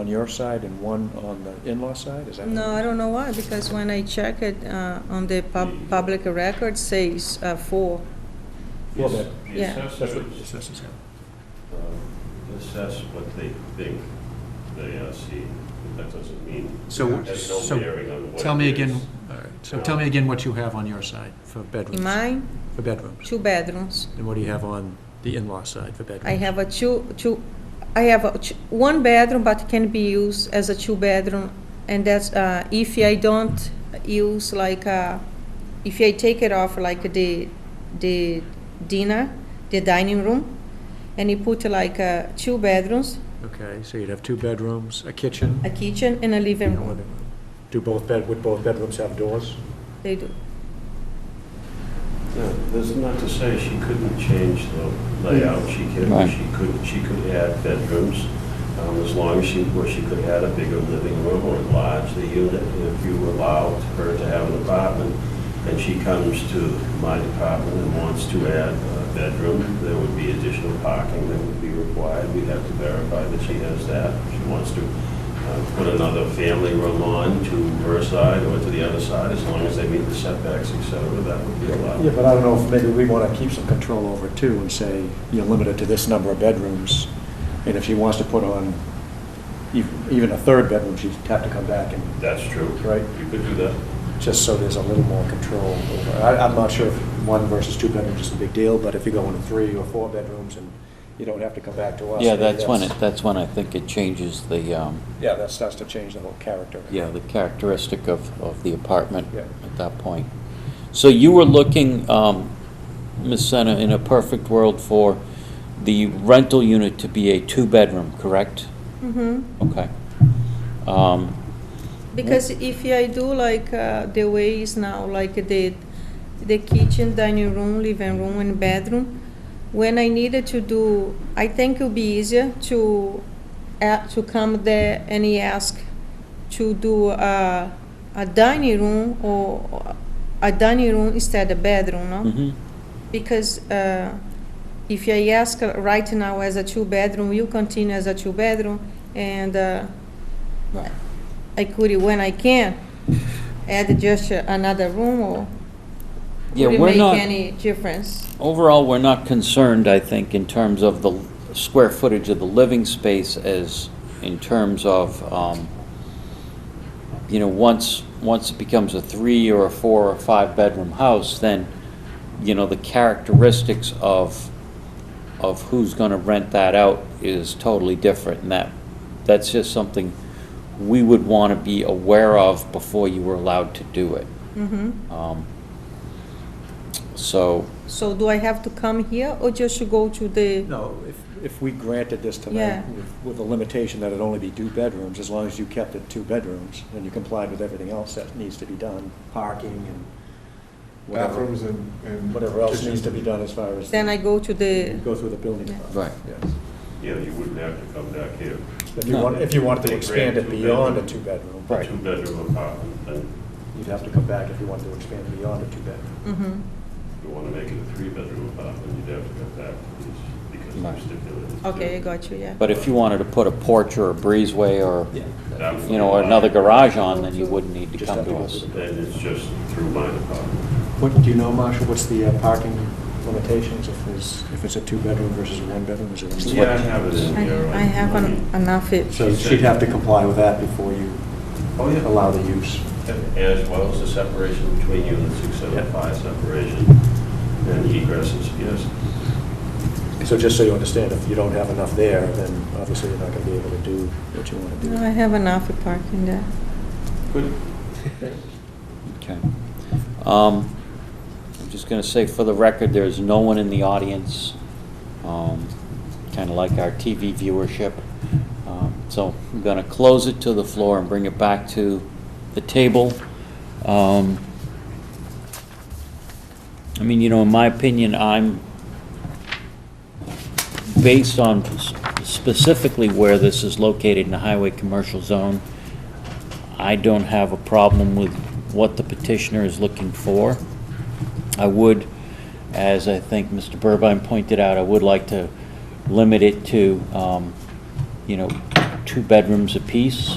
on your side and one on the in-law side, is that? No, I don't know why, because when I check it uh, on the pub- public record, says uh, four. Well, The ass- the yeah. assessors, Assessors, yeah. um, assess what they think they uh, see, but that doesn't mean, So, has no so, bearing on what tell it me is. again, all right, so tell me again what you have on your side for In bedrooms, mine, for bedrooms. two bedrooms. And what do you have on the in-law side for bedrooms? I have a two, two, I have a ch- one bedroom, but can be used as a two bedroom. And that's, uh, if I don't use like, uh, if I take it off like the, the dinner, the dining room, and you put like, uh, two bedrooms, Okay, so you'd have two bedrooms, a kitchen, a kitchen and a living and a room. living room. Do both bed, would both bedrooms have doors? They do. No, That's not to say she couldn't change the layout, she could, Right. she could, she could add bedrooms, um, as long as she, or she could add a bigger living room or enlarge the unit, if you allowed her to have an apartment, and she comes to my department and wants to add a bedroom, there would be additional parking that would be required, we'd have to verify that she has that, if she wants to uh, put another family room on to her side or to the other side, as long as they meet the setbacks, et cetera, that would be allowed. Yeah, but I don't know if maybe we want to keep some control over it too and say, you know, limit it to this number of bedrooms. And if she wants to put on ev- even a third bedroom, she'd have to come back and, That's true. Right. You could do that. just so there's a little more control over. I, I'm not sure if one versus two bedrooms is a big deal, but if you go into three or four bedrooms and you don't have to come back to us. Yeah, maybe that's when it, that's when I think it changes the, um, Yeah, that starts to change the whole character. yeah, the characteristic of, of the apartment Yeah. at that point. So you were looking, um, Ms. Senna, in a perfect world for the rental unit to be a two-bedroom, correct? Mm-hmm. Okay. Um, Because if I do like uh, the way is now, like the the kitchen, dining room, living room, and bedroom, when I needed to do, I think it'll be easier to a to come there and ask to do a, a dining room or a dining room instead of bedroom, no? mhm. Because uh, if I ask right now as a two-bedroom, you continue as a two-bedroom, and uh, Right. I could, when I can, add just another room, or Yeah, would it we're make not- any difference? Overall, we're not concerned, I think, in terms of the square footage of the living space as in terms of, um, you know, once, once it becomes a three or a four or five-bedroom house, then, you know, the characteristics of, of who's gonna rent that out is totally different, and that, that's just something we would wanna be aware of before you were allowed to do it. Mm-hmm. Um, So, So do I have to come here, or just to go to the, No, if, if we granted this Yeah. tonight with- with the limitation that it only be two bedrooms, as long as you kept it two bedrooms and you complied with everything else that needs to be done, parking and whatever, bathrooms and. and whatever else kitchen. needs to be done as far as. then I go to the, Go through the building. Yeah. process, Right. Yes. Yeah, you wouldn't have to come back here. If you No. want, if you wanted to They expand it grant two beyond a bedroom. two-bedroom. A two-bedroom apartment, then You'd have to come back if you wanted to expand it beyond a two-bedroom. Mhm. if you want to make it a three-bedroom apartment, you'd have to come back to this because Right. of stipulated. okay, I got you, yeah. But if you wanted to put a porch or a breezeway or, That would you know, or be another allowed. garage on, then you wouldn't need to come to us. Then it's just through my department. What, do you know, Marshall, what's the uh, parking limitations if there's, if it's a two-bedroom versus a one-bedroom? Is it- Yeah, I have it in I here. I have an- enough, it- So she'd have to comply with that before you Oh, yeah. allow the use. As well as the separation between units, six Yeah. seven five separation and egresses, yes. So just so you understand, if you don't have enough there, then obviously you're not going to be able to do what you want to no, I do. have enough parking there. Good. Okay. Um, I'm just gonna say for the record, there's no one in the audience, um, kinda like our TV viewership. Um, So I'm gonna close it to the floor and bring it back to the table. Um, I mean, you know, in my opinion, I'm, based on s- specifically where this is located in the highway commercial zone, I don't have a problem with what the petitioner is looking for. I would, as I think Mr. Burbine pointed out, I would like to limit it to, um, you know, two bedrooms apiece.